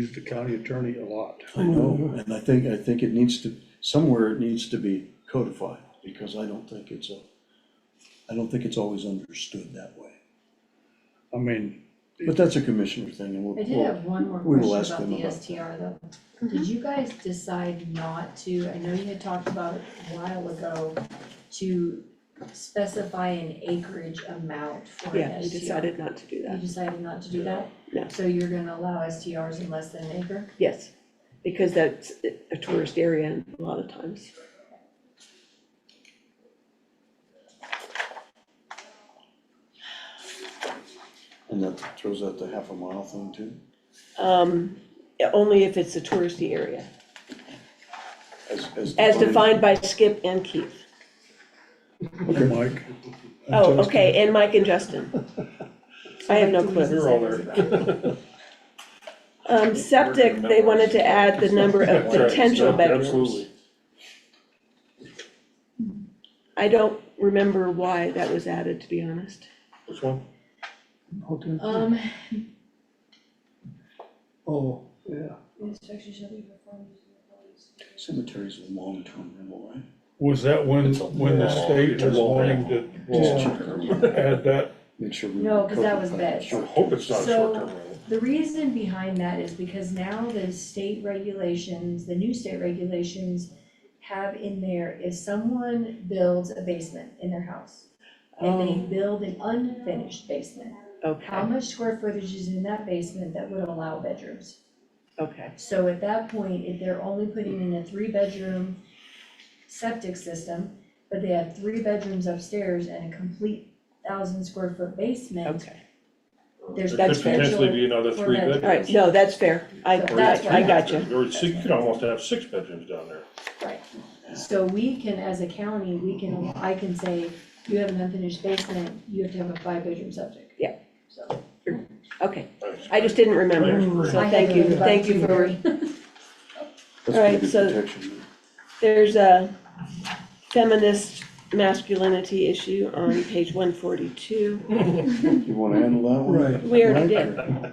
used the county attorney a lot. I know, and I think, I think it needs to, somewhere it needs to be codified, because I don't think it's a, I don't think it's always understood that way. I mean, But that's a commissioner thing, and we'll, I did have one more we will question ask about them the about STR though. Mm-hmm. Did you guys decide not to, I know you had talked about it a while ago, to specify an acreage amount for Yeah, an we STR? decided not to do You that, decided not to do that? No. So you're gonna allow STRs in less than an acre? yes, because that's a tourist area a lot of times. and that throws out the half a mile thing too, Um, only if it's a touristy area, as, as. as defined by Skip and Keith. Mike. Oh, okay, and Mike and Justin. I have no clue. You're all there. Um, septic, they wanted to add the number of potential bedrooms. I don't remember why that was added, to be honest. Which one? Okay. Um, Oh, yeah. Inspection shall be performed using the following- Cemeteries are long-term rental, right? Was that when, It's a when the wall. state It's a was wall. wanting to Just Wall. check, add that? make sure we. No, 'cause that was codify beds. I short-term. hope it's not a So- short-term rental. the reason behind that is because now the state regulations, the new state regulations have in there, if someone builds a basement in their house and they Oh. build an unfinished basement, how Okay, much square footage is in that basement that would allow bedrooms? okay, So at that point, if they're only putting in a three-bedroom septic system, but they have three bedrooms upstairs and a complete thousand square foot basement, okay. there's potential. There That's could potentially be another for three that. bedrooms. All right, no, that's fair. I, So that's I why- got you. Or six- you could almost have six bedrooms down there. So we can, as a county, we can, I can say, you have an unfinished basement, you have to have a five-bedroom septic. Yeah. So. Okay, Nice. I just didn't remember, so thank you, thank you for, That's All right, pretty so- good protection. there's a feminist masculinity issue on page one forty-two. You wanna handle that one? Right. We already Mike, did. or-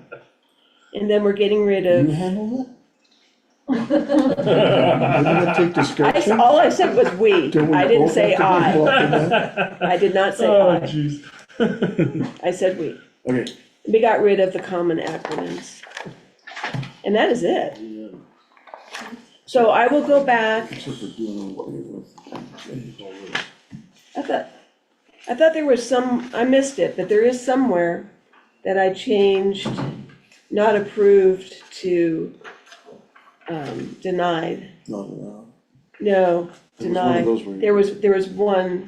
And then we're getting rid You of, handle that? We're gonna take I, s- description. all I said was we, Don't we I didn't both say have to be I, involved in that? I did not say Oh, I, jeez. I said we. Okay, We got rid of the common acronyms. And that is it. So I will go back, Except for doing away with. I thought, I thought there was some, I missed it, but there is somewhere that I changed not approved to um, denied. Not allowed. No, There was one of denied. those where- There was, there was one,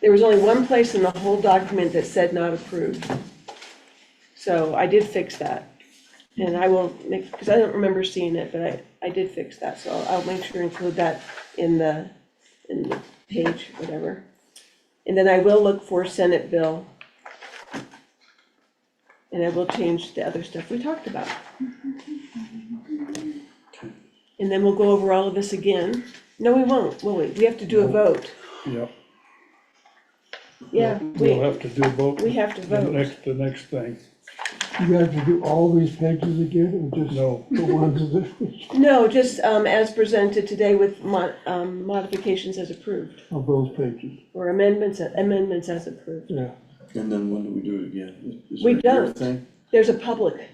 there was only one place in the whole document that said not approved. So I did fix that. And I will make, because I don't remember seeing it, but I, I did fix that, so I'll make sure to include that in the, in the page, whatever. And then I will look for Senate bill. And I will change the other stuff we talked about. And then we'll go over all of this again. No, we won't, will we? We have to do a vote. Yep. Yeah, We'll we, have to do both. we have to The vote. next, the next thing. You have to do all these pages again, or just No, the ones that, No, just, um, as presented today with mo- um, modifications as approved, of those pages, or amendments, amendments as approved. yeah. And then when do we do it again? Is We it your don't. thing? There's a public,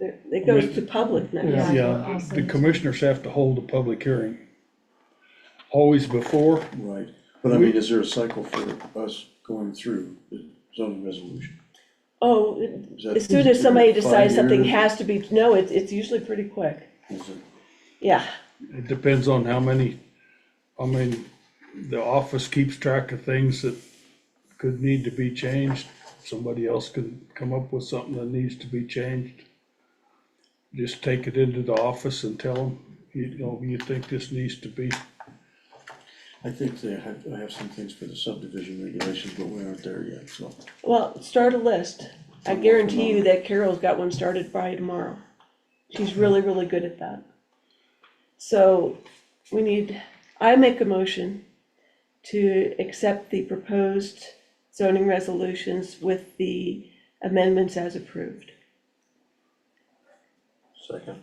there, it goes to public now. Yeah. yeah, the commissioners have to hold a public hearing. Always before, Right, but I mean, is there a cycle for us going through the zoning resolution? Oh, Is that- as soon as somebody decides Five something years? has to be, no, it's, it's usually pretty quick. Is it- Yeah, it depends on how many, I mean, the office keeps track of things that could need to be changed. Somebody else could come up with something that needs to be changed. Just take it into the office and tell them, you know, you think this needs to be I think they have, I have some things for the subdivision regulations, but we aren't there yet, so. well, start a list. I guarantee you that Carol's got one started by tomorrow. She's really, really good at that. So we need, I make a motion to accept the proposed zoning resolutions with the amendments as approved. Second.